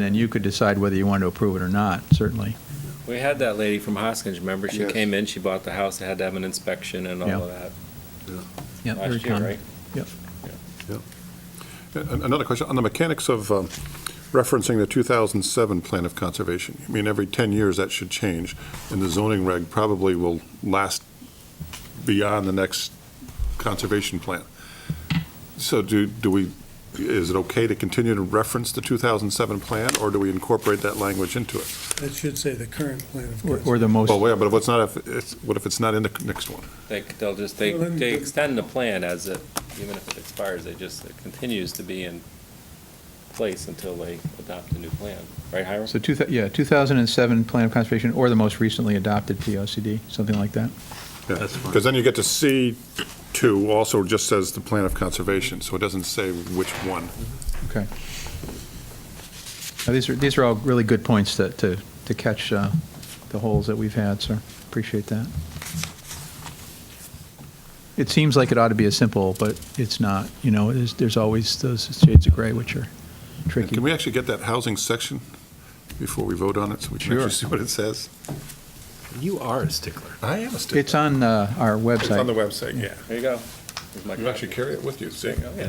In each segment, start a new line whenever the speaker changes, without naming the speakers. Then you could decide whether you want to approve it or not, certainly.
We had that lady from Hoskins, remember? She
Yes.
came in, she bought the house, they had to have an inspection and all
Yeah.
of that
Yeah, very
last year,
common.
right?
Yep.
An- Another question, on the mechanics of um, referencing the 2007 Plan of Conservation, I mean, every 10 years, that should change, and the zoning reg probably will last beyond the next conservation plan. So do, do we, is it okay to continue to reference the 2007 plan, or do we incorporate that language into it?
That should say the current plan of
Or-
course.
Or the most,
Well, wait, but what's not, if it's- what if it's not in the next one?
They, they'll just, they,
Well, then-
they extend the plan as it, even if it expires, it just, it continues to be in place until they adopt a new plan, right, Hiram?
so, two thou- yeah, 2007 Plan of Conservation or the most recently adopted POCD, something like that.
That's fine. Because then you get to C2 also just says the Plan of Conservation, so it doesn't say which one.
Okay. Now, These are, these are all really good points to, to to catch uh, the holes that we've had, sir. Appreciate that. It seems like it ought to be as simple, but it's not, you know, there's, there's always those shades of gray which are tricky.
Can we actually get that housing section before we vote on it, so we can
Sure.
actually see what it says?
You are a stickler.
I am a stickler.
It's on uh, our website.
It's on the website, yeah.
There you go. Here's my
You actually
copy.
carry it with you, see?
Oh, Yeah,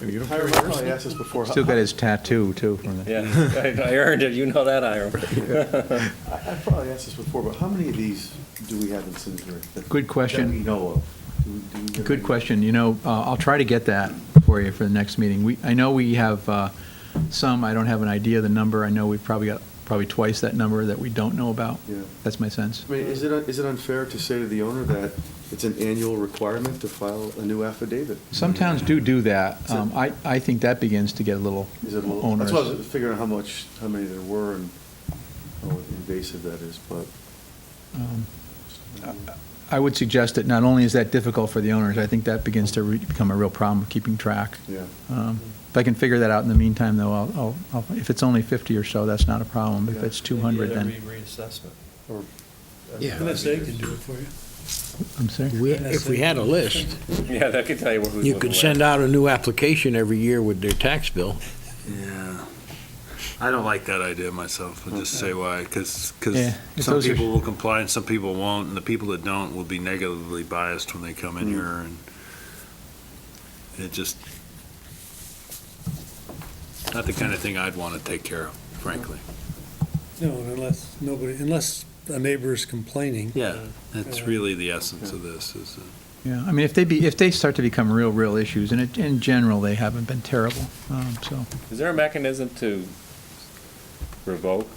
And you don't
I
carry it
probably asked this before.
Still got his tattoo, too, from the,
yeah, I I earned it, you know that, Hiram.
I I probably asked this before, but how many of these do we have in Simsbury? that-
Good question.
That we know of? Do we- do we know
Good
any?
question. You know, uh, I'll try to get that for you for the next meeting. We, I know we have uh, some, I don't have an idea of the number. I know we've probably got probably twice that number that we don't know about.
Yeah.
That's my sense.
I mean, is it, is it unfair to say to the owner that it's an annual requirement to file a new affidavit?
Some towns do do that. Um, I, I think that begins to get a little
Is it a little, that's why I was
onerous.
figuring out how much, how many there were and how invasive that is, but.
Um, I would suggest that not only is that difficult for the owners, I think that begins to re- become a real problem of keeping track.
Yeah.
Um, If I can figure that out in the meantime, though, I'll- I'll, I'll- if it's only 50 or so, that's not a problem. If
Yeah.
it's 200, then.
Maybe every reassessment.
Or-
Yeah.
NSA can do it for you.
I'm sorry?
We- If we had a list,
Yeah, that could tell you where who's
you
living
could
where.
send out a new application every year with their tax bill.
Yeah. I don't like that idea myself. I'll just say why, because,
Yeah, if
some
those are-
people will comply and some people won't, and the people that don't will be negatively biased when they come in here, and it just, not the kind of thing I'd want to take care of, frankly.
No, unless nobody, unless a neighbor is complaining.
Yeah, that's
Yeah.
really the essence of this, is, uh,
Yeah, I mean, if they be, if they start to become real, real issues, and it, in general, they haven't been terrible, um, so.
Is there a mechanism to revoke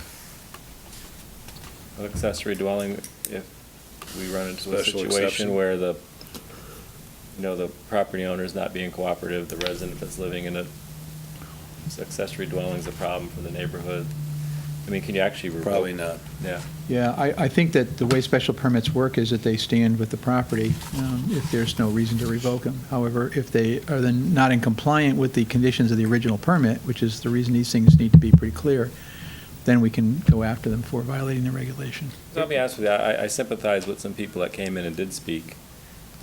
an accessory dwelling if we run into a
Special
situation
exception.
where the, you know, the property owner is not being cooperative, the resident that's living in a this accessory dwelling's a problem for the neighborhood? I mean, can you actually revoke?
probably not.
Yeah,
Yeah, I, I think that the way special permits work is that they stand with the property, um, if there's no reason to revoke them. However, if they are then not in compliant with the conditions of the original permit, which is the reason these things need to be pretty clear, then we can go after them for violating the regulation.
So I'll be honest with you, I I sympathize with some people that came in and did speak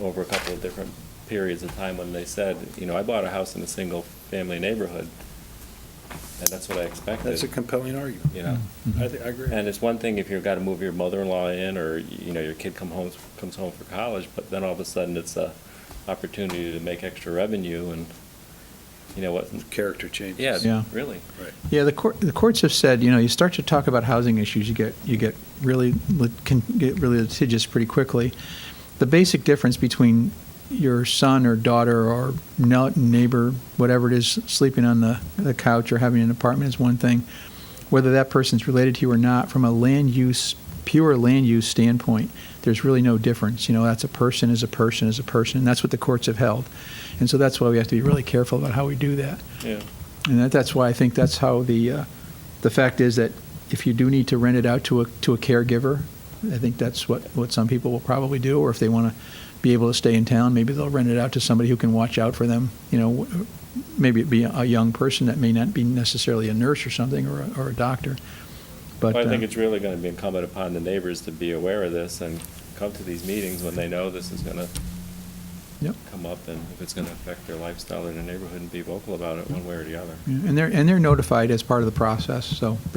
over a couple of different periods of time when they said, you know, I bought a house in a single-family neighborhood, and that's what I expected.
That's a compelling argument.
you know.
I think, I agree.
And it's one thing if you've got to move your mother-in-law in, or, you know, your kid come home, comes home for college, but then all of a sudden it's a opportunity to make extra revenue and, you know, what,
Character changes.
Yeah.
yeah, really.
Yeah, the court, the courts have said, you know, you start to talk about housing issues, you get, you get really, lit- can get really litigious pretty quickly. The basic difference between your son or daughter or no- neighbor, whatever it is, sleeping on the, the couch or having an apartment is one thing. Whether that person's related to you or not, from a land use, pure land use standpoint, there's really no difference. You know, that's a person is a person is a person, and that's what the courts have held. And so that's why we have to be really careful about how we do that.
Yeah.
And that, that's why I think that's how the, uh, the fact is that if you do need to rent it out to a, to a caregiver, I think that's what, what some people will probably do, or if they want to be able to stay in town, maybe they'll rent it out to somebody who can watch out for them. You know, w- maybe it'd be a young person that may not be necessarily a nurse or something, or a, or a doctor. But,
Well, I think
uh,
it's really going to be incumbent upon the neighbors to be aware of this and come to these meetings when they know this is going to
Yep.
come up and if it's going to affect their lifestyle or their neighborhood and be vocal about it one way or the other.
Yeah, And they're, and they're notified as part of the process, so